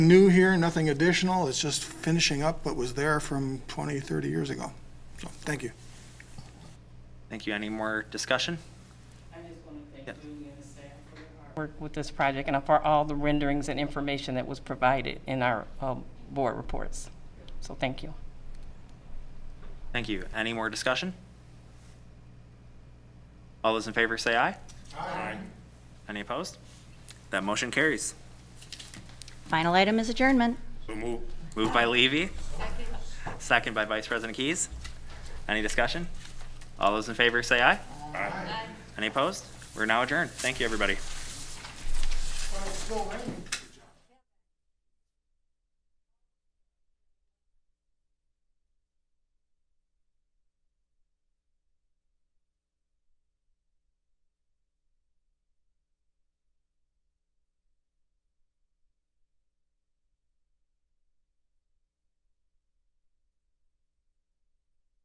New here, nothing additional, it's just finishing up what was there from 20, 30 years ago. So, thank you. Thank you. Any more discussion? I just want to Yeah. thank Julie and the staff for their hard work with this project and for all the renderings and information that was provided in our um, board reports. So thank you. Thank you. Any more discussion? All those in favor say aye. Aye. Any opposed? That motion carries. Final item is adjournment. Moved by Levy. Second by Vice President Keys. Any discussion? All those in favor say aye. Aye. Any opposed? We're now adjourned. Thank you, everybody. Well, it's still raining.